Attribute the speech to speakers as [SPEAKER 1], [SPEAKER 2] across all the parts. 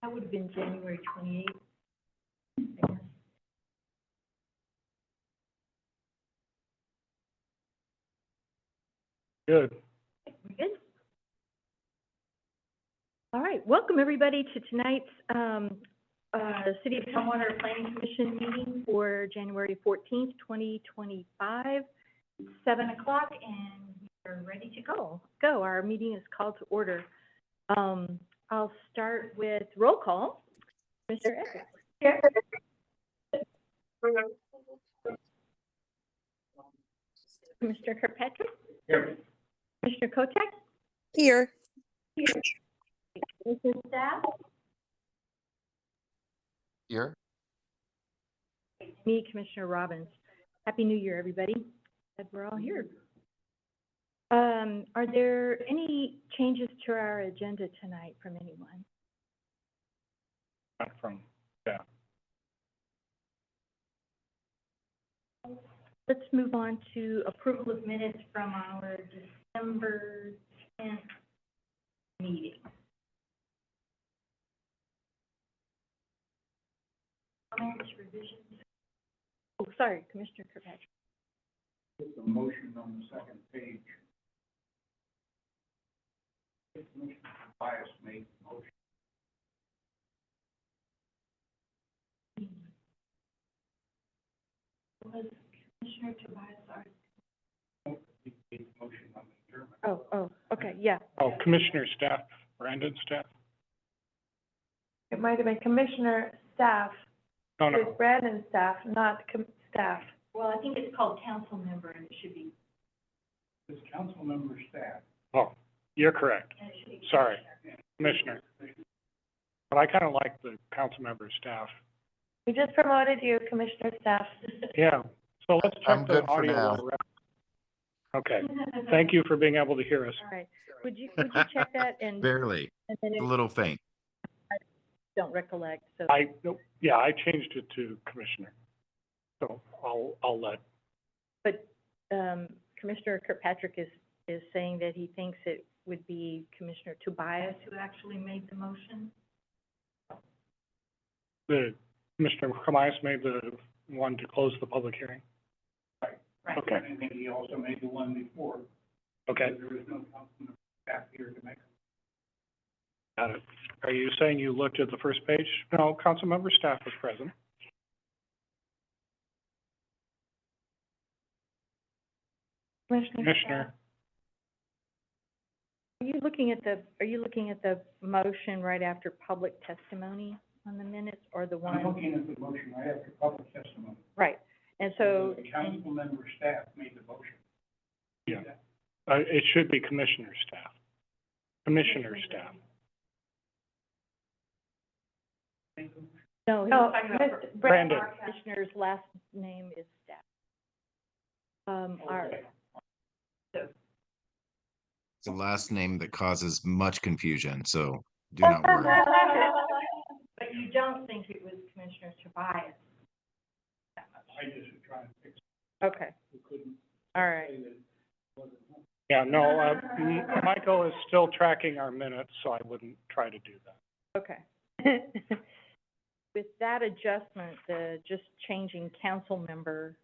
[SPEAKER 1] That would have been January twenty-eighth, I guess.
[SPEAKER 2] Good.
[SPEAKER 1] We good? All right, welcome everybody to tonight's, um, uh, City of Tumwater Planning Commission meeting for January fourteenth, twenty twenty-five, seven o'clock, and we are ready to go. Go, our meeting is called to order. Um, I'll start with roll call. Mr. Eckert. Here. Mr. Kirkpatrick.
[SPEAKER 2] Here.
[SPEAKER 1] Commissioner Kotek.
[SPEAKER 3] Here.
[SPEAKER 1] Commissioner Staff,
[SPEAKER 4] Here,
[SPEAKER 1] me, Commissioner Robbins. Happy New Year, everybody. Glad we're all here. Um, are there any changes to our agenda tonight from anyone?
[SPEAKER 2] Not from, yeah.
[SPEAKER 1] Let's move on to approval of minutes from our December tenth meeting. Comments, revisions? Oh, sorry, Commissioner Kirkpatrick.
[SPEAKER 2] It's a motion on the second page. Commissioner Tobias made the motion.
[SPEAKER 1] Was Commissioner Tobias already?
[SPEAKER 2] He made the motion on the German.
[SPEAKER 1] Oh, oh, okay, yeah.
[SPEAKER 2] Oh, Commissioner Staff, Brandon Staff?
[SPEAKER 5] It might have been commissioner staff,
[SPEAKER 2] No, no,
[SPEAKER 5] it's Brandon staff, not com- staff.
[SPEAKER 1] Well, I think it's called council member and it should be,
[SPEAKER 2] it's council member staff. Oh, you're correct,
[SPEAKER 1] and it should be.
[SPEAKER 2] Sorry. Commissioner. But I kind of like the council member staff.
[SPEAKER 5] We just promoted you, commissioner staff.
[SPEAKER 2] Yeah, so let's
[SPEAKER 4] I'm
[SPEAKER 2] check the
[SPEAKER 4] good for
[SPEAKER 2] audio.
[SPEAKER 4] now.
[SPEAKER 2] while we're at it. Okay,
[SPEAKER 1] Commissioner.
[SPEAKER 2] thank you for being able to hear us.
[SPEAKER 1] All right, would you, would you check that and,
[SPEAKER 4] barely,
[SPEAKER 1] and then
[SPEAKER 4] a
[SPEAKER 1] if
[SPEAKER 4] little faint.
[SPEAKER 1] you don't recollect, so.
[SPEAKER 2] I, yeah, I changed it to commissioner. So I'll, I'll let
[SPEAKER 1] But, um, Commissioner Kirkpatrick is, is saying that he thinks it would be Commissioner Tobias who actually made the motion.
[SPEAKER 2] the, Commissioner Camias made the one to close the public hearing?
[SPEAKER 1] Right.
[SPEAKER 2] Okay. I think he also made the one before. Okay. There was no councilman staff here to make. Got it. Are you saying you looked at the first page? No, council member staff was present.
[SPEAKER 5] Commissioner staff.
[SPEAKER 2] Commissioner,
[SPEAKER 1] Are you looking at the, are you looking at the motion right after public testimony on the minutes or the one?
[SPEAKER 2] at the motion right after public testimony.
[SPEAKER 1] Right, and so,
[SPEAKER 2] Council member staff made the motion. Yeah, uh, it should be commissioner staff. Commissioner staff.
[SPEAKER 1] no,
[SPEAKER 5] No,
[SPEAKER 1] his-
[SPEAKER 5] Miss-
[SPEAKER 2] Brandon.
[SPEAKER 1] Commissioner's last name is staff. Um, our,
[SPEAKER 4] It's the last name that causes much confusion, so do not worry.
[SPEAKER 1] But you don't think it was Commissioner Tobias?
[SPEAKER 2] I just was trying to fix,
[SPEAKER 1] Okay,
[SPEAKER 2] we couldn't
[SPEAKER 1] all right.
[SPEAKER 2] Yeah, no, uh, M- Michael is still tracking our minutes, so I wouldn't try to do that.
[SPEAKER 1] Okay. With that adjustment, the, just changing council member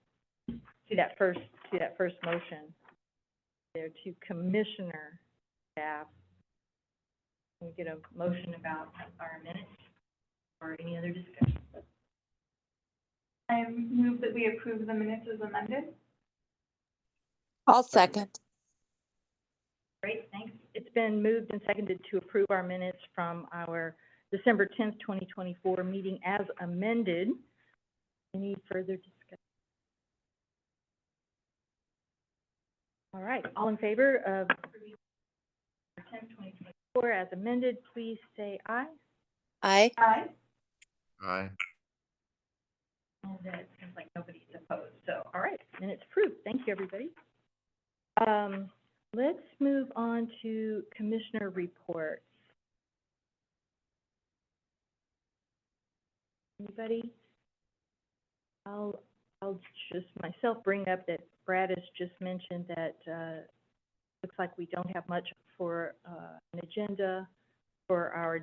[SPEAKER 1] to that first, to that first motion, there to commissioner staff. Can we get a motion about our minutes or any other discussion?
[SPEAKER 5] I move that we approve the minutes as amended.
[SPEAKER 3] I'll second.
[SPEAKER 1] Great, thanks. It's been moved and seconded to approve our minutes from our December tenth, twenty twenty-four meeting as amended. Any further discussion? All right, all in favor of approving December tenth, twenty twenty-four as amended, please say aye.
[SPEAKER 3] Aye.
[SPEAKER 5] Aye.
[SPEAKER 4] Aye.
[SPEAKER 1] And that seems like nobody's opposed, so, all right, and it's approved, thank you, everybody. Um, let's move on to commissioner reports. Anybody? I'll, I'll just myself bring up that Brad has just mentioned that, uh, looks like we don't have much for, uh, an agenda for our